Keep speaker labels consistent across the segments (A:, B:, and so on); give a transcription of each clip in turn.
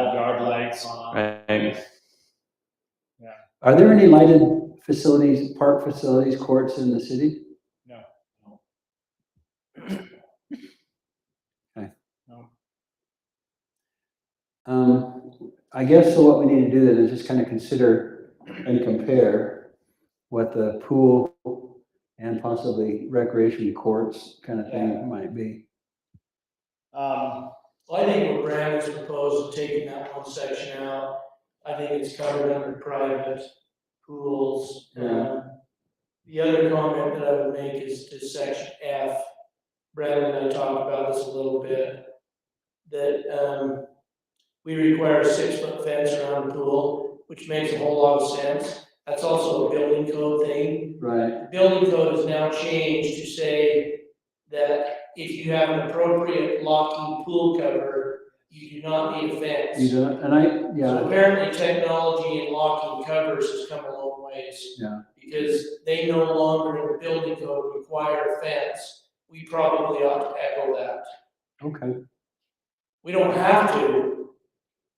A: yard lights on.
B: Right.
C: Are there any lighted facilities, park facilities, courts in the city?
A: No.
C: Um, I guess so what we need to do then is just kind of consider and compare what the pool and possibly recreation courts kind of thing might be.
A: Um,
D: Well, I think what Brad has proposed, taking that one section out, I think it's covered under private pools. Um, The other comment that I would make is to section F, Brad and I talked about this a little bit, that, um, we require a six-foot fence around the pool, which makes a whole lot of sense. That's also a building code thing,
C: Right,
D: building code has now changed to say that if you have an appropriate locking pool cover, you do not need a
C: you
D: fence.
C: do, and I,
D: So
C: yeah,
D: apparently technology and locking covers has come a long ways.
C: Yeah.
D: Because they no longer in the building code require a fence. We probably ought to echo that.
C: okay,
D: We don't have to.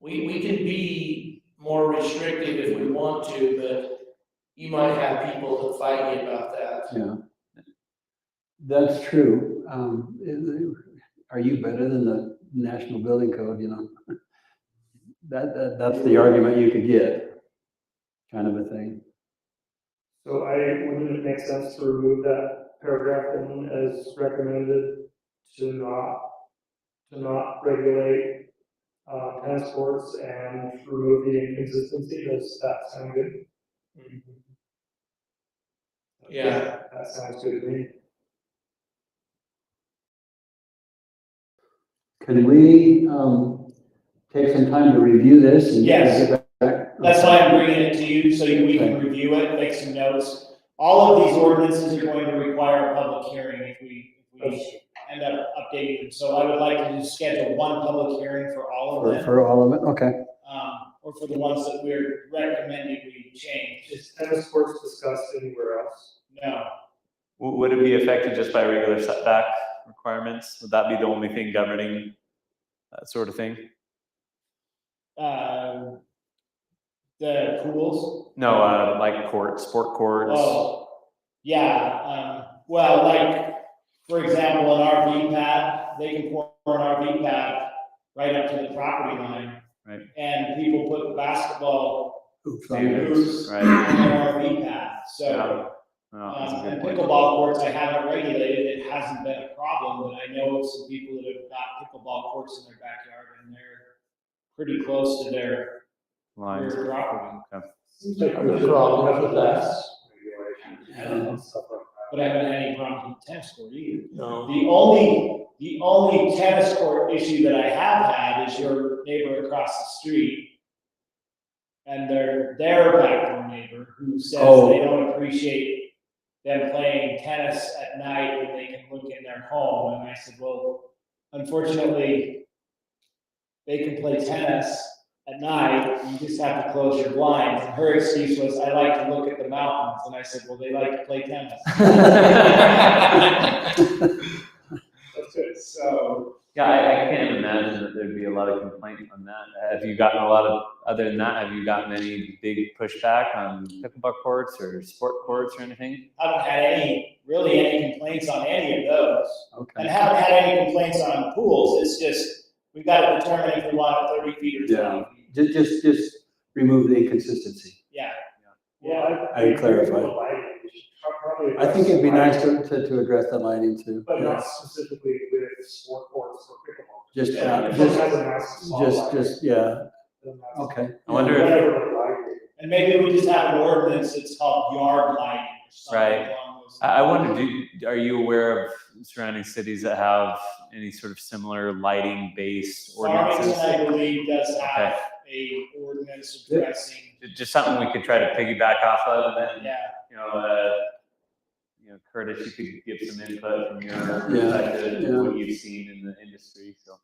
D: We, we can be more restrictive if we want to, but you might have people that fight you about that.
C: yeah. That's true. Um, is- are you better than the National Building Code, you know? That, that, that's the argument you could get, kind of a thing.
E: So I, wouldn't it make sense to remove that paragraph then as recommended to not, to not regulate, uh, tennis courts and remove the inconsistency, does that sound good?
D: Yeah.
E: That sounds good to me.
C: Can we, um, take some time to review this and?
A: Yes.
C: get back?
A: That's why I'm bringing it to you, so we can review it, make some notes. All of these ordinances are going to require a public hearing if we, if we end up updating them. So I would like to just schedule one public hearing for all of
C: For,
A: them,
C: for all of it, okay,
A: um, or for the ones that we're recommending we change.
E: Is tennis courts discussed anywhere else?
A: No,
B: W- Would it be affected just by regular setback requirements? Would that be the only thing governing that sort of thing?
A: um, the pools.
B: No, uh, like court, sport courts.
A: Oh, yeah, um, well, like, for example, an RV pad, they can pour an RV pad right up to the property line.
B: Right.
A: And people put basketball
C: Oops,
A: and
C: I'm-
A: hoops on
B: Right.
A: an RV pad,
B: Yeah.
A: so.
B: No, Oh, that's
A: Um,
B: a good
A: and
B: point.
A: pickleball courts, I haven't regulated, it hasn't been a problem, but I know of some people that have got pickleball courts in their backyard and they're pretty close to their
B: Lines.
A: rear property,
E: Seems like
D: I'm wrong with that.
E: Regulation and stuff like that.
A: but I haven't had any problems with tennis court either.
D: No.
A: The only, the only tennis court issue that I have had is your neighbor across the street. And their, their backdoor neighbor who says
C: Oh.
A: they don't appreciate them playing tennis at night when they can look in their home. And I said, well, unfortunately, they can play tennis at night. You just have to close your blinds. And her excuse was, I like to look at the mountains. And I said, well, they like to play tennis. That's it. So,
B: Yeah, I, I can't imagine that there'd be a lot of complaint on that. Have you gotten a lot of, other than that, have you gotten any big pushback on pickleball courts or sport courts or anything?
A: I haven't had any, really any complaints on any of those. And
C: Okay,
A: haven't had any complaints on pools. It's just, we've got to determine if we want it thirty feet or
C: Yeah.
A: twenty feet.
C: just, just, just remove the inconsistency.
A: Yeah.
E: Yeah, I.
C: I would clarify.
E: Lighting, we should probably
C: I think it'd be
E: address
C: nice to, to, to address the lighting too.
E: But not specifically with sport courts or pickleball.
C: Just, uh,
A: Yeah.
C: just,
E: Has a nice small
C: just,
E: light.
C: just, yeah,
E: Doesn't have a
C: okay.
B: I wonder if,
E: Whatever the light is.
A: And maybe we just have an ordinance that's called yard lighting or
B: Right.
A: something along those.
B: I, I wonder, do, are you aware of surrounding cities that have any sort of similar lighting-based
A: Farmington,
B: ordinances?
A: I believe, does have a ordinance addressing,
B: Ju- Just something we could try to piggyback off of and,
A: yeah.
B: you know, uh, you know, Curtis, you could give some input from your
C: Yeah,
B: perspective
C: yeah.
B: and what you've seen in the industry, so.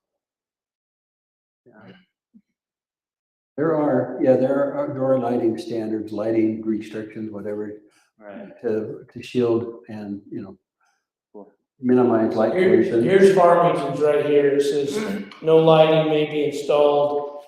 C: There are, yeah, there are, there are lighting standards, lighting restrictions, whatever,
B: Right.
C: to, to shield and, you know,
B: Cool.
C: minimize light
D: Here-
C: pollution.
D: Here's Farmington's right here, it says, no lighting may be installed